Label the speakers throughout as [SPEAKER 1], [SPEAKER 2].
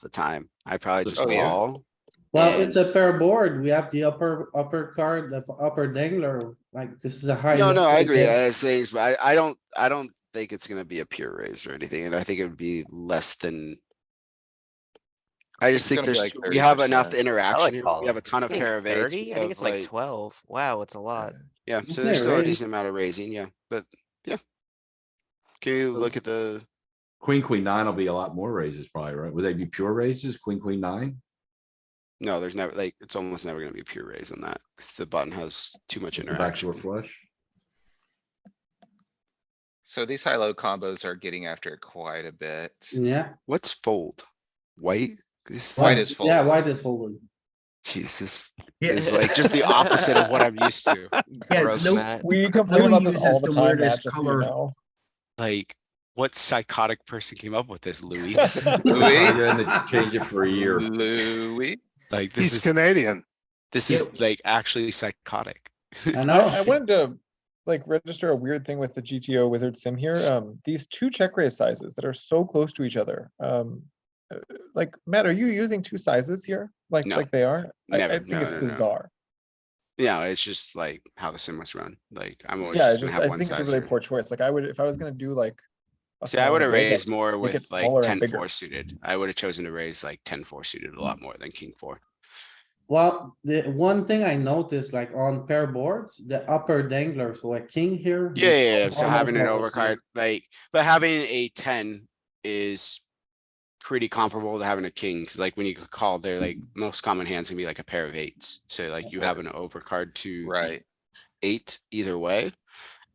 [SPEAKER 1] the time. I probably
[SPEAKER 2] Just
[SPEAKER 1] just
[SPEAKER 2] oh, yeah.
[SPEAKER 1] call.
[SPEAKER 3] Well, it's a pair board. We have the upper, upper card, the upper dangler, like this is a high.
[SPEAKER 1] No, no, I agree.
[SPEAKER 3] Yeah.
[SPEAKER 1] As things, but I, I don't, I don't think it's gonna be a pure raise or anything, and I think it would be less than. I just
[SPEAKER 2] It's
[SPEAKER 1] think
[SPEAKER 2] gonna be
[SPEAKER 1] there's,
[SPEAKER 2] like
[SPEAKER 1] we have enough
[SPEAKER 2] 30%.
[SPEAKER 1] interaction. here. We
[SPEAKER 4] calling.
[SPEAKER 1] have a ton of
[SPEAKER 4] think
[SPEAKER 1] pair of eights.
[SPEAKER 4] 30?
[SPEAKER 1] we
[SPEAKER 4] I think it's
[SPEAKER 1] have,
[SPEAKER 4] like twelve. Wow, it's a lot.
[SPEAKER 1] Yeah,
[SPEAKER 3] Isn't
[SPEAKER 1] so there's
[SPEAKER 3] it
[SPEAKER 1] still a
[SPEAKER 3] raised?
[SPEAKER 1] decent amount of raising, yeah, but, yeah. Can you
[SPEAKER 2] So-
[SPEAKER 1] look at the,
[SPEAKER 5] Queen, queen nine will be a lot more raises probably, right? Would they be pure raises? Queen, queen nine?
[SPEAKER 1] no, there's never, like, it's almost never gonna be a pure raise on that, 'cause the button has too much
[SPEAKER 5] Backdoor
[SPEAKER 1] interaction.
[SPEAKER 5] flush?
[SPEAKER 2] So these high-low combos are getting after it quite a bit.
[SPEAKER 3] Yeah.
[SPEAKER 1] What's fold? White? This,
[SPEAKER 2] White
[SPEAKER 3] Why-
[SPEAKER 2] is
[SPEAKER 3] Yeah,
[SPEAKER 2] folded.
[SPEAKER 3] white is folded.
[SPEAKER 1] Jesus, is like just the opposite of what I'm used to,
[SPEAKER 6] Yeah,
[SPEAKER 2] Gross,
[SPEAKER 6] Lou-
[SPEAKER 2] Matt.
[SPEAKER 7] We complain about
[SPEAKER 6] Louis
[SPEAKER 7] this all
[SPEAKER 6] uses
[SPEAKER 7] the
[SPEAKER 6] the
[SPEAKER 7] time, Matt,
[SPEAKER 6] weirdest
[SPEAKER 7] just so you
[SPEAKER 6] color.
[SPEAKER 7] know.
[SPEAKER 1] like, what psychotic person came up with this, Louis?
[SPEAKER 2] Louis?
[SPEAKER 5] You're gonna change it for a year.
[SPEAKER 2] Louis?
[SPEAKER 1] Like, this
[SPEAKER 8] He's
[SPEAKER 1] is,
[SPEAKER 8] Canadian.
[SPEAKER 1] this is like actually psychotic.
[SPEAKER 3] I
[SPEAKER 7] I, I
[SPEAKER 3] know.
[SPEAKER 7] wanted to like register a weird thing with the GTO wizard sim here. Um, these two check raise sizes that are so close to each other. Um, uh, like Matt, are you using two sizes here? Like
[SPEAKER 1] No.
[SPEAKER 7] like they are? I, I
[SPEAKER 1] Never.
[SPEAKER 7] think
[SPEAKER 1] No,
[SPEAKER 7] it's
[SPEAKER 1] no, no.
[SPEAKER 7] bizarre.
[SPEAKER 1] Yeah, it's just like how the sim was run, like, I'm always
[SPEAKER 7] Yeah, it's
[SPEAKER 1] just gonna
[SPEAKER 7] just
[SPEAKER 1] have
[SPEAKER 7] I
[SPEAKER 1] one
[SPEAKER 7] think it's a
[SPEAKER 1] size.
[SPEAKER 7] really
[SPEAKER 1] here.
[SPEAKER 7] poor choice. Like I would if I was gonna do like. a
[SPEAKER 1] See, I
[SPEAKER 7] smaller
[SPEAKER 1] would have
[SPEAKER 7] build,
[SPEAKER 1] raised more
[SPEAKER 7] make it
[SPEAKER 1] with like
[SPEAKER 7] smaller and
[SPEAKER 1] 10
[SPEAKER 7] bigger.
[SPEAKER 1] 4 suited. I would have chosen to raise like 10 4 suited a lot more than king four.
[SPEAKER 3] Well, the one thing I noticed, like on pair boards, the upper dangler, so a king here.
[SPEAKER 1] Yeah, yeah, yeah. So
[SPEAKER 3] Oh,
[SPEAKER 1] having an
[SPEAKER 3] okay, I see.
[SPEAKER 1] overcard, like, but having a 10 is pretty comparable to having a king. 'cause, like when you call, they're like
[SPEAKER 2] Mm-hmm.
[SPEAKER 1] most common hands can be like a pair of eights. So like you have an overcard to the
[SPEAKER 2] Right.
[SPEAKER 1] eight either way.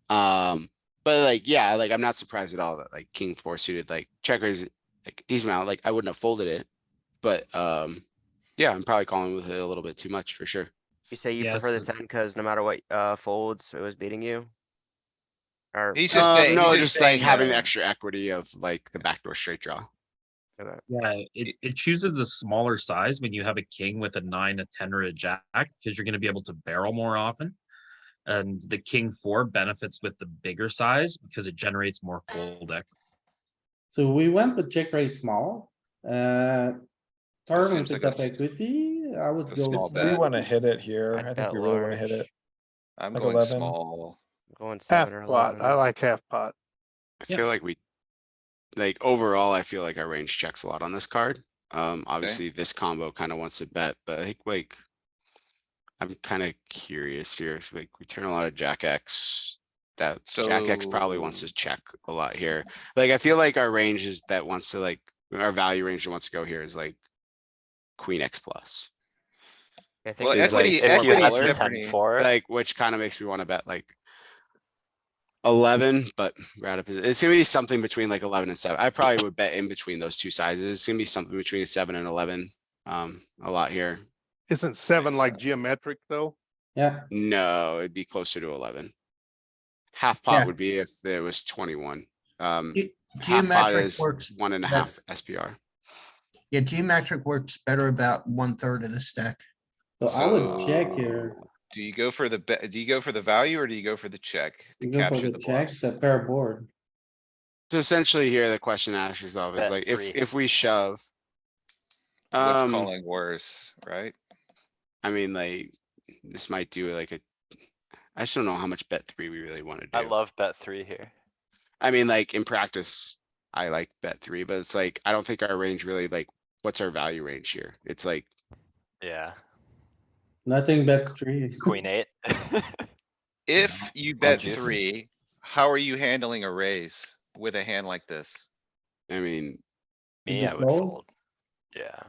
[SPEAKER 1] Um, but like, yeah, like I'm not surprised at all that like king four suited, like checkers, like decent amount, like I wouldn't have folded it. But um, yeah, I'm probably calling with it a little bit too much for sure.
[SPEAKER 4] You say you prefer the
[SPEAKER 7] Yes.
[SPEAKER 4] ten cuz no matter what, uh, folds, it was beating you? Or?
[SPEAKER 2] He's just
[SPEAKER 1] Um,
[SPEAKER 2] saying-
[SPEAKER 1] no,
[SPEAKER 2] he's
[SPEAKER 1] just
[SPEAKER 2] saying
[SPEAKER 1] like having
[SPEAKER 2] that-
[SPEAKER 1] the extra equity of like the backdoor straight draw.
[SPEAKER 9] Yeah, it, it chooses a smaller size when you have a king with a nine, a ten, or a jack, because you're gonna be able to barrel more often. And the king four benefits with the bigger size because it generates more fold equity.
[SPEAKER 3] So we went with check raise small, uh. Turn and
[SPEAKER 2] Seems like
[SPEAKER 3] pick up
[SPEAKER 2] a s-
[SPEAKER 3] equity, I would
[SPEAKER 2] a
[SPEAKER 3] go.
[SPEAKER 2] small
[SPEAKER 3] with
[SPEAKER 2] bet.
[SPEAKER 7] We
[SPEAKER 3] three.
[SPEAKER 7] want to hit it here.
[SPEAKER 4] I'd
[SPEAKER 7] I think
[SPEAKER 4] bet
[SPEAKER 7] we really want to hit
[SPEAKER 4] large.
[SPEAKER 7] it.
[SPEAKER 2] I'm
[SPEAKER 7] Like
[SPEAKER 2] going
[SPEAKER 7] 11.
[SPEAKER 2] small.
[SPEAKER 4] Going
[SPEAKER 8] Half
[SPEAKER 4] seven or
[SPEAKER 8] pot. I
[SPEAKER 4] eleven.
[SPEAKER 8] like half pot.
[SPEAKER 1] I
[SPEAKER 9] Yeah.
[SPEAKER 1] feel like we, like overall, I feel like our range checks a lot on this card. Um, obviously, this combo kind of wants to bet, but I think like. I'm kind of curious here, if, like we turn a lot of jack X. That jack X probably wants to
[SPEAKER 2] So-
[SPEAKER 1] check a lot here. Like, I feel like our range is that wants to like, our value range that wants to go here is like. Queen X plus,
[SPEAKER 4] I think
[SPEAKER 2] Well,
[SPEAKER 4] it's
[SPEAKER 2] equity,
[SPEAKER 4] like- if you
[SPEAKER 2] equity
[SPEAKER 4] have
[SPEAKER 2] is
[SPEAKER 4] the 10
[SPEAKER 2] different.
[SPEAKER 4] four,
[SPEAKER 1] like, which kind of makes me want to bet like. Eleven, but we're out of position. It's gonna be something between like eleven and seven. I probably would bet in between those two sizes. It's gonna be something between a seven and eleven. Um, a lot here.
[SPEAKER 8] Isn't seven like geometric though?
[SPEAKER 3] Yeah,
[SPEAKER 1] No, it'd be closer to eleven. Half pot
[SPEAKER 6] Yeah.
[SPEAKER 1] would be if there was twenty-one. Um,
[SPEAKER 6] Ge-
[SPEAKER 1] half pot
[SPEAKER 6] Geometric
[SPEAKER 1] is
[SPEAKER 6] works,
[SPEAKER 1] one and a
[SPEAKER 6] better.
[SPEAKER 1] half SPR.
[SPEAKER 6] yeah, geometric works better about one third of the stack.
[SPEAKER 3] so I would check here.
[SPEAKER 2] So, Do you go for the, be- do you go for the value or do you go for the check to
[SPEAKER 3] You go for
[SPEAKER 2] capture
[SPEAKER 3] the
[SPEAKER 2] the
[SPEAKER 3] checks,
[SPEAKER 2] bluffs?
[SPEAKER 3] a pair board.
[SPEAKER 1] So essentially here, the question to ask yourself is
[SPEAKER 4] Bet
[SPEAKER 1] like, if,
[SPEAKER 4] three.
[SPEAKER 1] if we shove.
[SPEAKER 2] What's
[SPEAKER 1] Um,
[SPEAKER 2] calling worse, right?
[SPEAKER 1] I mean, like, this might do like a, I just don't know how much bet three we really wanna do.
[SPEAKER 10] I love bet three here.
[SPEAKER 1] I mean, like, in practice, I like bet three, but it's like, I don't think our range really like, what's our value range here? It's like,
[SPEAKER 10] Yeah,
[SPEAKER 3] Nothing bets three.
[SPEAKER 10] queen eight.
[SPEAKER 2] If
[SPEAKER 4] Oh,
[SPEAKER 2] you bet
[SPEAKER 10] juice.
[SPEAKER 2] three, how are you handling a raise with a hand like this?
[SPEAKER 1] I mean,
[SPEAKER 3] You
[SPEAKER 10] Me,
[SPEAKER 3] just
[SPEAKER 10] I would
[SPEAKER 3] fold?
[SPEAKER 10] fold. Yeah,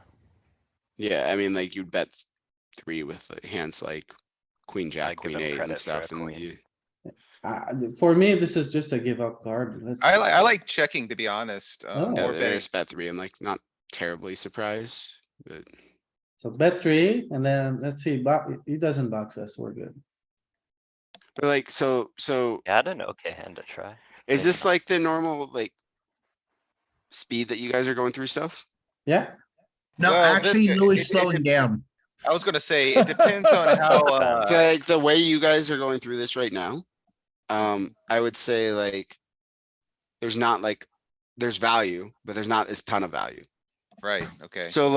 [SPEAKER 1] yeah, I mean, like, you'd bet th- three with like, hands like queen, jack,
[SPEAKER 10] give
[SPEAKER 1] queen
[SPEAKER 10] him
[SPEAKER 1] eight and
[SPEAKER 10] credit for a
[SPEAKER 1] stuff, and
[SPEAKER 10] queen.
[SPEAKER 1] you,
[SPEAKER 3] Uh, for me, this is just a give up card. Let's-
[SPEAKER 2] I like, I like checking, to be honest.
[SPEAKER 3] Oh.
[SPEAKER 2] Um,
[SPEAKER 1] yeah,
[SPEAKER 2] or betting
[SPEAKER 1] there's bet three. I'm like, not terribly surprised, but.
[SPEAKER 3] So bet three, and then let's see, but he doesn't box us, we're good.
[SPEAKER 1] But like, so, so
[SPEAKER 10] yeah, I had an okay hand to try.
[SPEAKER 1] is
[SPEAKER 10] Maybe
[SPEAKER 1] this
[SPEAKER 10] not.
[SPEAKER 1] like the normal, like? Speed that you guys are going through stuff?
[SPEAKER 3] Yeah,
[SPEAKER 6] No,
[SPEAKER 2] Well, this
[SPEAKER 6] actually,
[SPEAKER 2] guy-
[SPEAKER 6] Louis
[SPEAKER 2] it- it- it-
[SPEAKER 6] slowing down.
[SPEAKER 2] I was gonna say, it depends on how,
[SPEAKER 10] Depends.
[SPEAKER 1] So
[SPEAKER 2] uh,
[SPEAKER 1] like the way you guys are going through this right now, um, I would say like. There's not like, there's value, but there's not this ton of value.
[SPEAKER 11] right, okay.
[SPEAKER 2] So